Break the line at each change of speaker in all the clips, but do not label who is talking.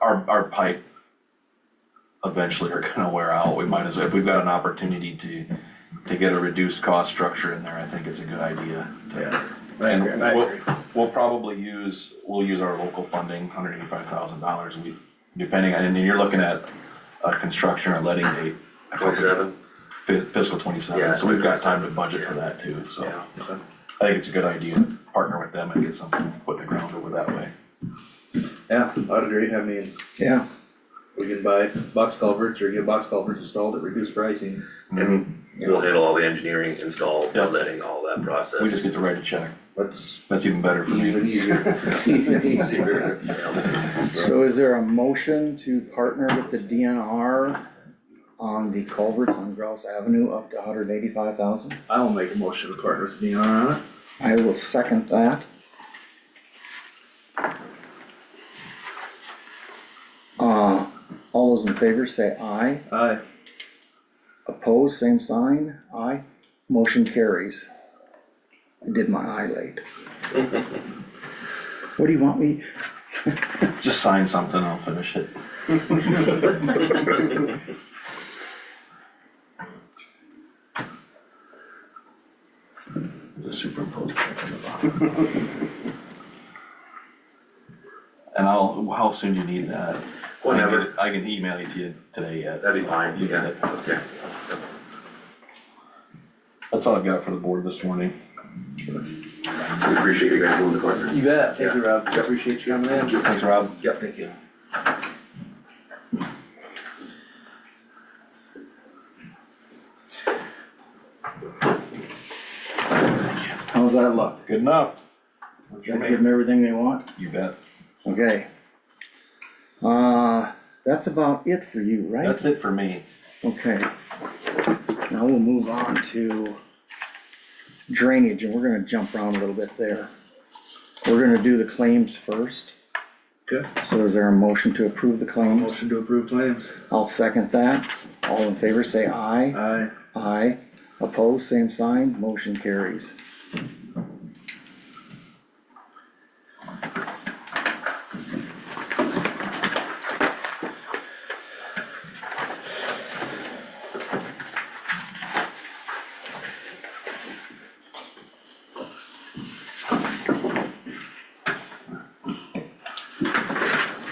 our, our pipe eventually are gonna wear out, we might as well, if we've got an opportunity to, to get a reduced cost structure in there, I think it's a good idea. to-
Yeah.
And
agree, I
we'll,
agree.
we'll probably use, we'll use our local funding, hundred eighty-five thousand dollars, we, depending, on- and you're looking at a construction or letting date. I think,
Twenty-seven,
fis- Fiscal
Yeah,
twenty-seven, so we've got time to budget for that too, so. I think it's a good idea, to partner with them and get something put in the ground over that way.
Yeah, I'd agree, I mean,
Yeah,
we can buy box culverts or get box culverts installed at reduced pricing.
and we'll handle all the engineering, install, letting, all that process.
We just get to write a check,
That's
that's even better for me.
even easier, even easier.
so is there a motion to partner with the DNR on the culverts on Grouse Avenue up to hundred eighty-five thousand?
I will make a motion to partner with Neon on it.
I will second that. Uh, all those in favor say aye,
Aye.
opposed, same sign, aye, motion carries. I did my eye late. What do you want me,
Just sign something, I'll finish it. Just superimpose check on the bottom. And I'll, how soon do you need that? I can get
Whenever.
it- I can email it to you today yet.
That'd be fine,
You can
yeah,
get it.
okay.
That's all I've got for the board this morning.
We appreciate you guys moving the corner.
You bet, thank you, Rob, appreciate you coming in.
Thanks, Rob.
Yep, thank you.
how's that look?
Good enough.
Gotta give them everything they want?
You bet.
Okay. Uh, that's about it for you, right?
That's it for me.
Okay. Now we'll move on to drainage, and we're gonna jump around a little bit there. We're gonna do the claims first,
Okay,
so is there a motion to approve the claims?
motion to approve claims.
I'll second that. All in favor, say aye.
Aye.
Aye. Opposed, same sign, motion carries.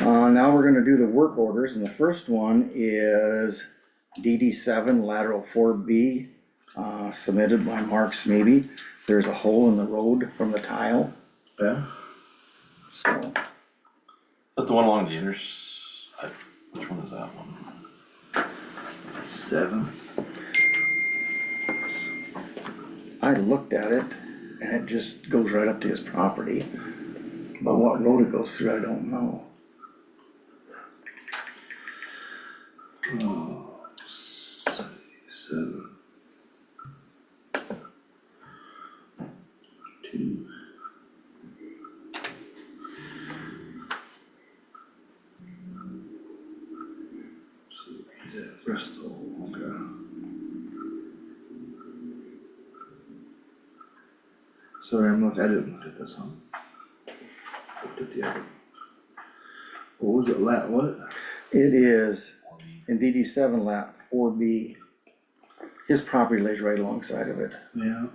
Uh, now we're gonna do the work orders, and the first one is DD seven lateral four B, uh, submitted by Mark Smeby. There's a hole in the road from the tile,
Yeah,
so
But the one along the inters, I- which one is that one?
seven.
I looked at it and it just goes right up to his property. But what road it goes through, I don't know.
Seven. Two. So, yeah, Bristol, okay. Sorry, I'm not, I didn't look at this one. Looked at the other. What was it, la, what?
It is in DD seven lap four B. His property lays right alongside of it.
Yeah.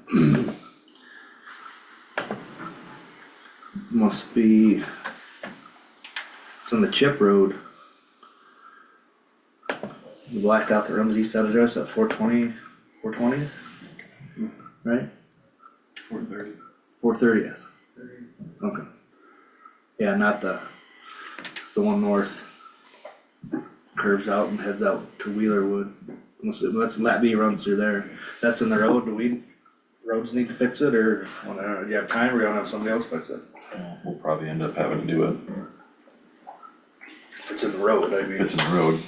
Must be, it's on the chip road. The blacked out that runs east out of address at four twenty, four twentieth, right?
Four thirty.
Four thirtieth. Okay. Yeah, not the, it's the one north. Curves out and heads out to Wheelerwood. Must- That's, that B runs through there. That's in the road. Do we, roads need to fix it or wanna, do you have time or you wanna have somebody else fix it?
We'll probably end up having to do it
If It's in the road, I
if
mean.
it's in the road.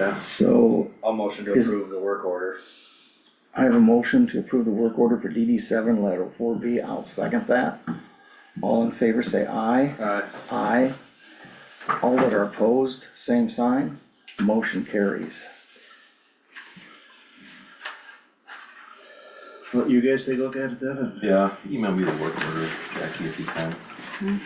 Yeah.
So
I'll motion to
Is-
approve the work order.
I have a motion to approve the work order for DD seven lateral four B. I'll second that. All in favor, say aye.
Uh,
Aye. All that are opposed, same sign, motion carries.
let you guys take a look at it then and
Yeah, email me the work order, Jackie, if you can.